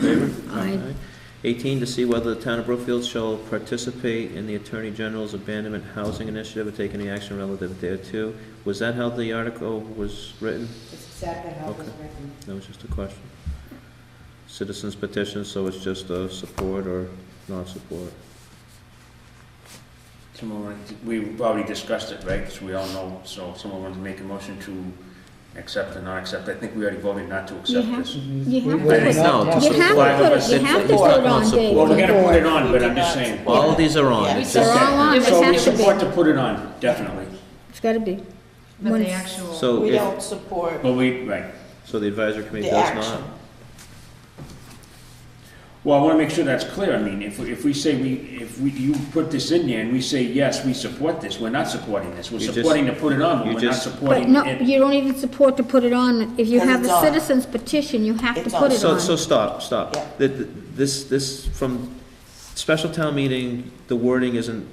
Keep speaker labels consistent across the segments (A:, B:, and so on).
A: favor?
B: Aye.
A: 18, to see whether the town of Brookfield shall participate in the Attorney General's abandonment housing initiative or take any action relative thereto. Was that how the article was written?
C: That's exactly how it was
A: Okay.
C: written.
A: That was just a question. Citizens petition, so it's just a support or non-support.
D: Someone, wanna d- we've already discussed it, right, so we all know, so someone wants to make a motion to accept or not accept, I think we already voted not to accept
B: have-
D: this.
B: You have to
D: Wait,
B: put it,
A: no, to
B: you have
A: supply
B: to put
D: us
B: it, you
D: with-
B: have to
D: he's
B: put
A: talking
B: it
A: about
B: on,
A: support.
D: Well, we're
B: Dave.
D: gonna put it on, but I'm just saying.
A: Well, All these are on.
C: Yeah,
A: It's
B: They're
A: just-
B: all on,
D: So
B: it
D: we
B: has to
D: support
B: be,
D: to put it on, definitely,
B: it's gotta be.
E: But
B: One-
E: the actual.
A: So
C: We
A: if,
C: don't support
D: but we, right,
A: so the advisory committee
C: the
A: does
C: action.
A: not?
D: well, I wanna make sure that's clear, I mean, if, if we say we, if we, you put this in there and we say, yes, we support this, we're not supporting this, we're
A: You just-
D: supporting to put it
A: you
D: on, but we're not
A: just-
B: But
D: supporting
B: no,
D: it.
B: you don't even support to put it on, if you
C: Because
B: have
C: it's
B: the
C: on.
B: citizens petition, you have to
C: It's
B: put
C: on.
B: it
A: So, so
B: on.
A: stop, stop.
C: Yeah.
A: The- the- This, this, from special town meeting, the wording isn't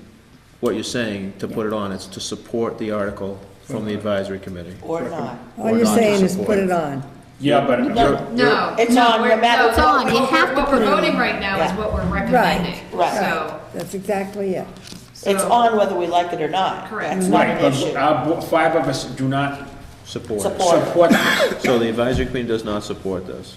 A: what you're saying to put it on, it's to support the article from the advisory committee.
C: Or not.
F: All you're saying is put it on.
D: Yeah, but
A: You're-
E: No.
C: It's
E: no,
C: on, no
E: we're-
C: matter-
E: no,
C: It's
B: on, you
E: what we're-
B: have to
E: What we're
B: put it on.
E: voting right now is
C: Yeah.
E: what we're
F: Right,
E: recommending,
F: right.
E: so,
F: That's exactly it.
C: It's
E: So-
C: on whether we like it or not.
E: Correct.
C: That's not
D: Right,
C: an
D: but
C: issue.
D: our, bo- five of us do not
A: Support.
C: Support.
D: support this.
A: So the advisory committee does not support this.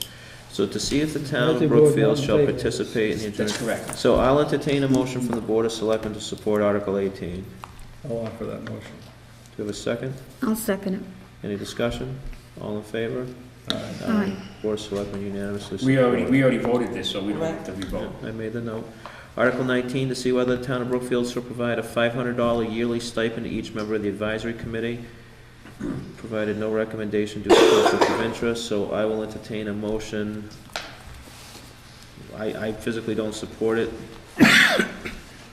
A: So to see if the town of
G: Multi-board,
A: Brookfield shall
G: multi-favor.
A: participate in the.
D: That's
A: adjourn-
D: correct.
A: So I'll entertain a motion from the Board of Selectmen to support Article eighteen.
G: I'll offer that motion.
A: Do you have a second?
B: I'll second it.
A: Any discussion? All in favor?
G: Aye.
B: Aye.
A: Board of Selectmen unanimously
D: We
A: support.
D: already, we already voted this, so we don't have to
A: Yeah,
D: re-vote.
A: I made the note. Article nineteen, to see whether the town of Brookfield shall provide a five hundred dollar yearly stipend to each member of the advisory committee, provided no recommendation due to conflict of interest, so I will entertain a motion. I, I physically don't support it,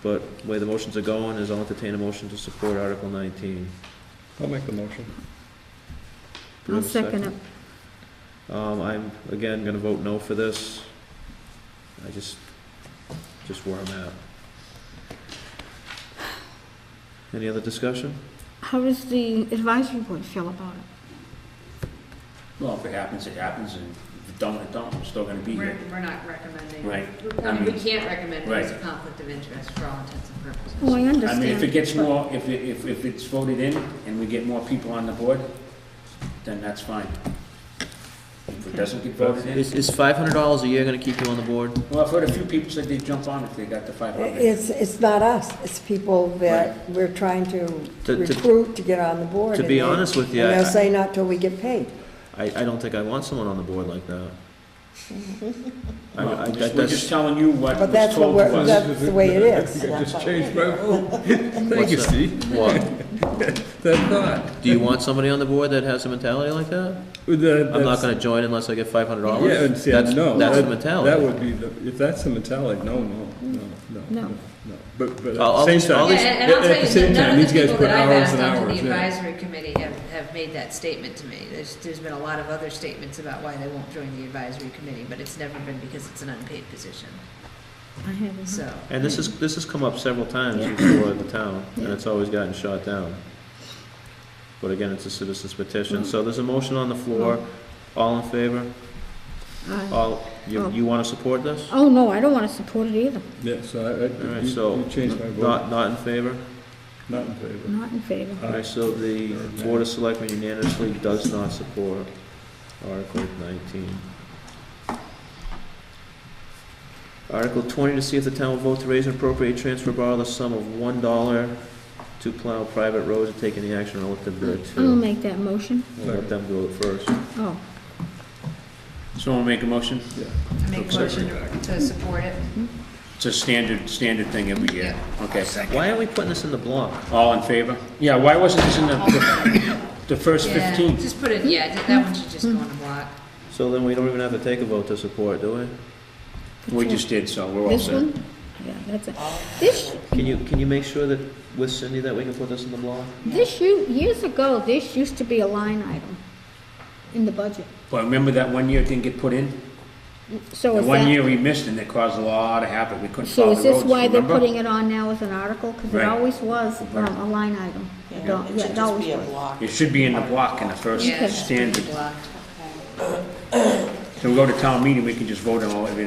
A: but the way the motions are going is I'll entertain a motion to support Article nineteen.
G: I'll make the motion.
A: Do we
B: I'll
A: have a
B: second it.
A: Um, I'm, again, gonna vote no for this. I just, just where I'm at. Any other discussion?
B: How does the advisory board feel about it?
D: Well, if it happens, it happens, and if it don't, it don't, we're still gonna be
E: we're,
D: here.
E: we're not recommending.
D: Right.
E: I mean, we can't recommend it as a
D: Right.
E: conflict of interest for all intents and
B: Oh, I
E: purposes.
B: understand.
D: I mean, if it gets more, if, it- if, if it's voted in and we get more people on the board, then that's fine. If it doesn't get voted in,
A: Is, is five hundred dollars a year gonna keep you on the board?
D: well, I've heard a few people said they'd jump on if they got the five hundred.
F: It's, it's not us, it's people that we're trying to
A: To- to-
F: recruit to get on the board.
A: to be
F: and they-
A: honest with you,
F: And
A: I-
F: they'll say not till we get paid.
A: I, I don't think I want someone on the board like that. I, I, that-
D: We're just
A: that's,
D: telling you what
F: But
D: was
F: that's what
D: told to
F: we're,
D: us.
F: that's the way it
G: I think
F: is.
G: I just changed my vote. Thank
A: What's
G: you,
A: that?
G: Steve.
A: what,
G: That thought.
A: do you want somebody on the board that has a mentality like that? I'm not gonna join unless I get five hundred dollars?
G: Yeah, and see, I know.
A: That's the
G: that-
A: mentality.
G: That would be, the if that's the mentality, no, no, no, no.
B: No.
G: no. But, but at
A: I'll-
G: the same
A: I'll- I'll-
E: Yeah,
A: At
G: time,
A: least-
E: and and I'll
G: at- at the
E: tell you,
G: same
E: that
G: time,
E: none of
G: these
E: the
G: guys
E: people
G: put
E: that I've
G: hours
E: asked
G: and
E: onto the
G: hours in.
E: advisory committee have, have made that statement to me. There's, there's been a lot of other statements about why they won't join the advisory committee, but it's never been because it's an unpaid position,
B: I haven't.
E: so.
A: And this is, this has come up several times before in the town, and it's always gotten shot down. But again, it's a citizen's petition, so there's a motion on the floor, all in favor?
B: Aye.
A: All, you, you wanna support this?
B: Uh, Oh, no, I don't want to support it either.
G: Yeah, so I- I,
A: Alright, so,
G: you- you changed my vote,
A: not, not in favor?
G: not in favor. Uh,
B: Not in favor.
G: Aye.
A: Alright, so the Board of Selectmen unanimously does not support Article nineteen. Article twenty, to see if the town will vote to raise and appropriate transfer borrow the sum of one dollar to plow private roads and take any action relative
B: I'll
A: thereto.
B: make that motion.
A: We'll let them do it first.
B: Oh,
D: Someone make a motion?
E: I make a motion to- to support it.
D: It's a standard, standard thing every year. Okay.
A: Why aren't we putting this in the block?
D: All in favor? Yeah, why wasn't this in the, the first
E: Yeah,
D: fifteen?
E: Just put it, yeah, that that one should just go on the block.
A: So then we don't even have to take a vote to support, do we?
D: We just did, so we're all
B: this
D: set.
B: one? Yeah, that's it. This,
A: Can you, can you make sure that with Cindy that we can put this in the block?
B: This, u- years ago, this used to be a line item in the budget.
D: But remember that one year it didn't get put in?
B: So
D: The
B: is
D: one year
B: that,
D: we missed and it caused a lot of havoc, we couldn't
B: so
D: follow
B: is
D: the
B: this
D: roads,
B: why they're putting
D: remember?
B: it on now as an article? Because it
D: Right.
B: always was um, a line item. It al-
C: Yeah, It
B: yeah,
C: should just
B: always
C: be a
B: was.
C: block.
D: It should be in the block in the first
E: Yeah, it's
D: standard.
E: blocked.
D: So we go to town meeting, we can just vote on all, everything